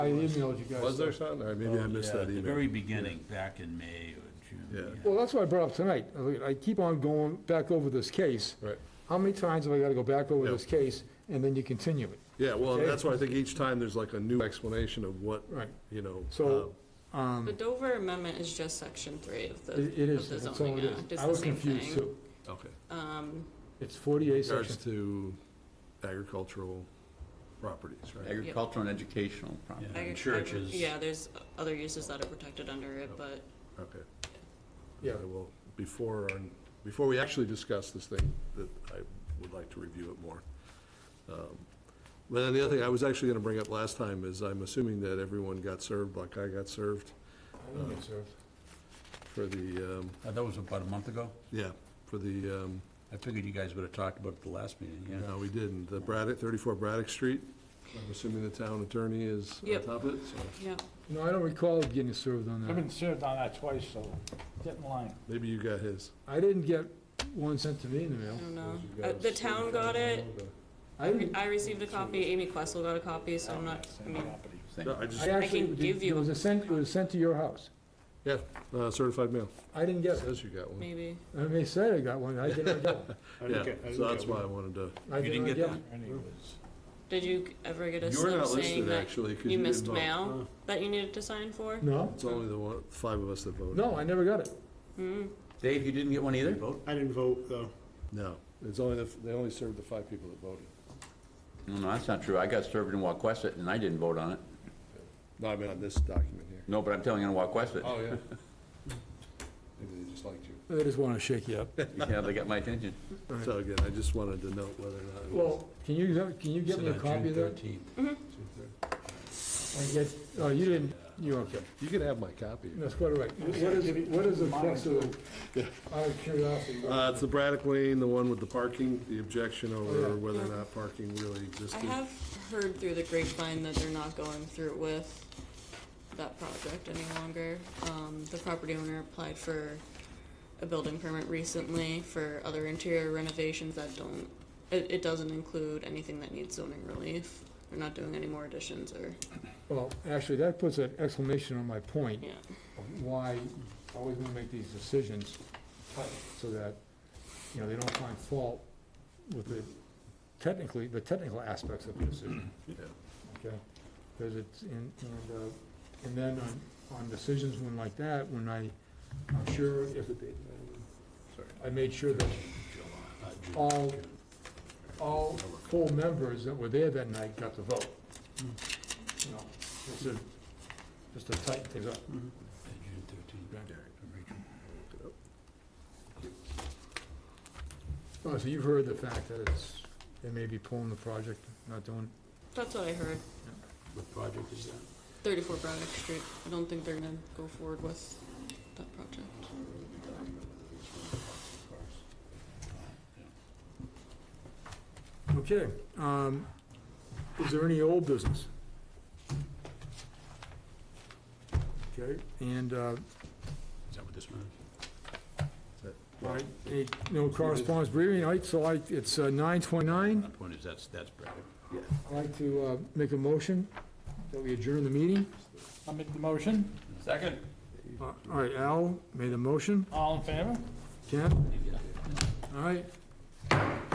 I emailed you guys. Was there something, or maybe I missed Oh, that Yeah, At the email? very beginning, back in May or June. Yeah. Well, that's what I brought up tonight. I mean, I keep on going back over this case. Right, How many times have I got to go back over Yeah. this case and then you continue it? yeah, well, Okay. that's why I think each time there's like a new explanation of what, Right. you know. So, The Dover amendment is just section three of the, Hmm. Um, It it of is, the that's all zoning it act, is. it's I the was same confused thing. too. uh, Okay. Um, It's 48 Regards section. to agricultural properties, right? Agricultural and educational property. Yeah, and agri- Churches. Yeah, there's other uses that are protected under it, but Okay. Yeah. I will, before, our- before we actually discuss this thing, that I would like to review it more. Um, But then the other thing I was actually going to bring up last time is I'm assuming that everyone got served, like I got served I didn't get served. for the, um, Uh, That was about a month ago. yeah, for the, um, I figured you guys would have talked about it the last meeting, yeah. no, we didn't, the Braddock, 34 Braddock Street. I'm assuming the town attorney is on Yep. top of it, so yeah, No, I don't recall getting served on I've that. been served on that twice, so get in line. maybe you got his. I didn't get one sent to me in the I mail. don't know. Uh, The town got it, I didn't, I received a copy, Amy Questle got a copy, so I'm not, I mean, Same. No, I I just, actually, can give you it was a a sent, it was sent to your house. yeah, uh, certified mail. I didn't get it. Says you got one. maybe. I may say I got one, I did not get one. Yeah, so that's why I wanted to. I You didn't not get one. that? Did you ever get a You're slip not saying listed, that actually, 'cause you didn't missed vote. mail that you needed to sign for? No, It's only the one, five of us that voted. no, I never got it. Dave, you didn't get one either? I didn't vote, though. No, it's only, the they only served the five people that voted. No, no, that's not true. I got served in Wauquesset and I didn't vote on it. No, I mean, on this document here. No, but I'm telling you, in Wauquesset. Oh, yeah. Maybe they just liked you. I just want to shake you up. Yeah, they got my attention. So again, I just wanted to note whether or not it was. Well, can you, can you get me a copy of that? June 13th. I get, oh, you didn't, you're okay. You can have my copy. That's quite all right. What is, what is the crux of it? Out of curiosity. Uh, it's the Braddock Lane, the one with the parking, the objection Yeah. over whether or not parking really I existed. have heard through the grapevine that they're not going through with that project any longer. Um, the property owner applied for a building permit recently for other interior renovations that don't, it, it doesn't include anything that needs zoning relief. They're not doing any more additions or, Well, actually, that puts an exclamation on my point, yeah. of why always we make these decisions, so that, you know, they don't find fault with the technically, the technical aspects of the decision. Yeah. Okay, because it's, and, and, uh, and then on, on decisions when like that, when I, I'm sure if, I made sure that all, all full members that were there that night got to vote. You know, just to, just to tighten things up. Yeah, June 13th. Oh, so you've heard the fact that it's, they may be pulling the project, not doing, That's what I heard, What project is that? thirty-four Braddock Street. I don't think they're gonna go forward with that project. Okay, um, is there any old business? Okay, and, uh, Is that what this meant? all right, any- no correspondence briefing, all right, so I, it's uh, 9:29. My point is, that's, that's Braddock. I'd like to, uh, make a motion that we adjourn the meeting. I'll make the motion. Second. Uh, All right, Al made a motion, All in favor? Ken? All right,